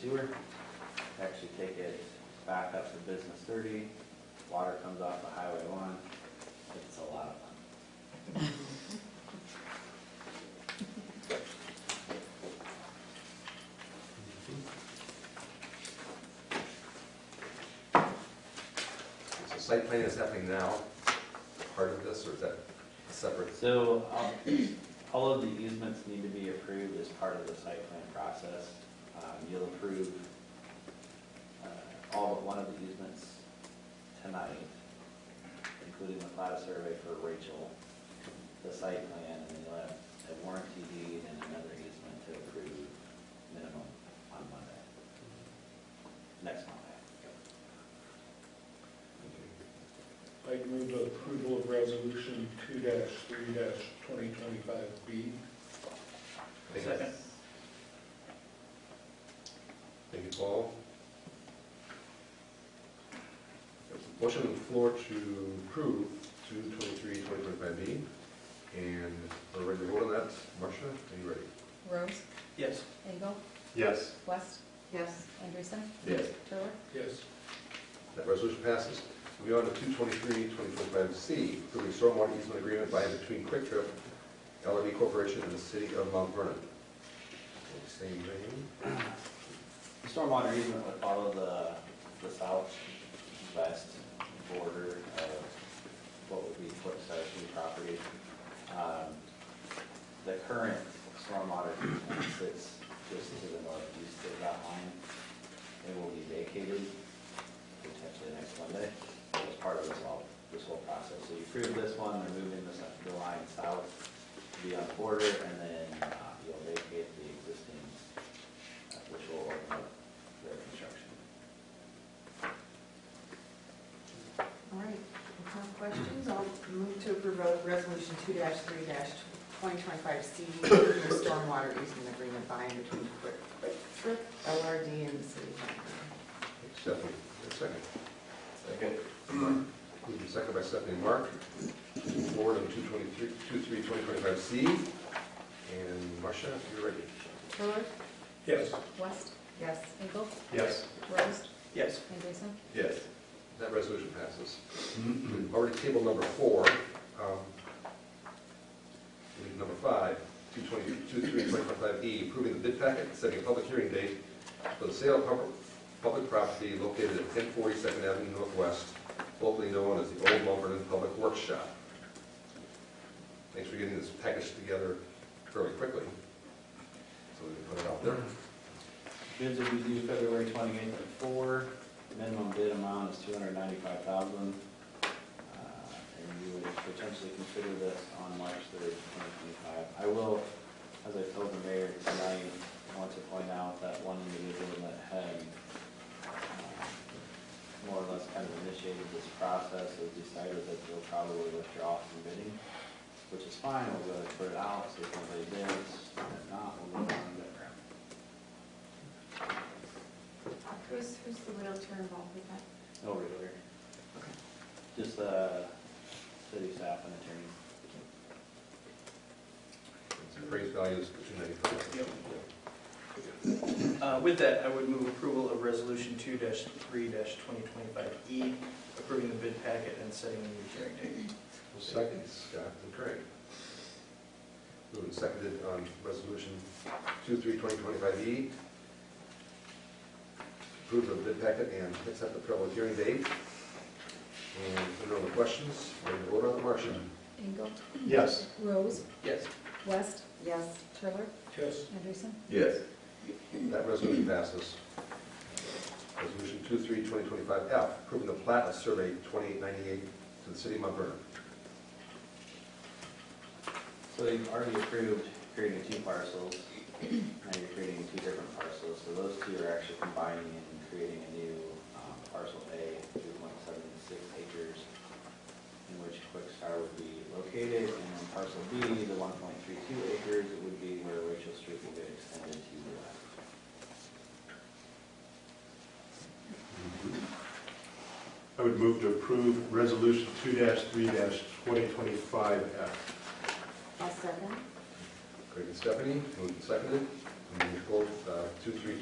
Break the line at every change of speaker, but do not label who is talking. sewer. Actually take it back up to business thirty, water comes off the highway one, it's a lot of fun.
So site planning is happening now, part of this, or is that a separate?
So, um, all of the easements need to be approved as part of the site plan process. Um, You'll approve uh, all but one of the easements tonight, including the plat survey for Rachel, the site plan, and then you'll have a warranty deed and another easement to approve minimum on Monday. Next Monday.
I'd move approval of resolution two three twenty twenty-five B.
Thank you. Thank you, Paul. There's a Motion on the floor to approve 223, 2025B, and we're ready to vote on that. Marcia, are you ready?
Rose,
Yes.
Engel,
Yes.
West. Yes. Anderson.
Yes.
Turler.
Yes.
That resolution passes. We on to 223, 2025C, approving stormwater easement agreement by and between Quick Trip, LRB Corporation, and the City of Mount Vernon. Same vein.
The Stormwater easement would follow the, the southwest border of what would be Flipside Shoe property. Um, The current stormwater easement sits just to the northeast of that line. It will be vacated potentially next Monday as part of this all, this whole process. So you approve this one, they're moving this, the line south to be on the border, and then uh, you'll vacate the existing uh, which will open up their construction.
All right, if no questions, I'll move to approve Res- resolution two three twenty twenty-five C, approving the stormwater easement agreement by and between Quick, Quick Trip, LRD and the city. of Montgomery.
Stephanie, your second. Second. Moved and second by Stephanie and Mark. Forward on 223, 2325C. And Marcia, if you're ready.
Turler,
Yes.
West,
Yes,
Engel,
Yes.
Rose,
Yes.
Anderson.
Yes. That resolution passes. We've Already table number four. um, Leave number five, 22325E, E, approving the bid packet, setting a public hearing date for the sale of pub- public property located at 1040 Second Avenue Northwest, locally known as the Old Mount Vernon Public Workshop. Thanks for getting this package together fairly quickly, so we can put it out there.
Bids will be due February twenty-eighth at four, minimum bid amount is two hundred ninety-five thousand. Uh, And you would potentially consider this on March third, twenty twenty-five. I will, as I told the mayor tonight, want to point out that one individual that had uh, more or less kind of initiated this process has decided that they'll probably withdraw from bidding, which is fine, we'll go ahead and put it out, see if nobody bids, if not, we'll move on to the ground.
Who's, who's the realtor involved with that?
No realtor. Oh, Just, uh, city staff and attorney.
Appraised value is 295.
Yep. Uh, With that, I would move approval of Resolution 2-3-2025E, E, approving the bid packet and setting the hearing date.
Second, Scott and Craig. Moved and seconded on resolution 23-2025E. E? Approve the bid packet and accept the public hearing date. And if there are no other questions, we're going to vote on the motion.
Engel,
Yes.
Rose,
Yes.
West,
yes,
Turler,
Yes.
Anderson.
Yes. That resolution passes. Resolution 23-2025F, approving the plat of survey 2898 to the city of Mount Vernon.
So you've already approved creating two parcels, now you're creating two different parcels, so those two are actually combining and creating a new um, parcel A, two point seven six acres, in which Quickstar would be located, and then parcel B, the one point three two acres, it would be where Rachel Street will get extended to the left.
I would move to approve Resolution 2-3-2025F.
I'll second.
Craig and Stephanie, moved and seconded. And we vote uh, 23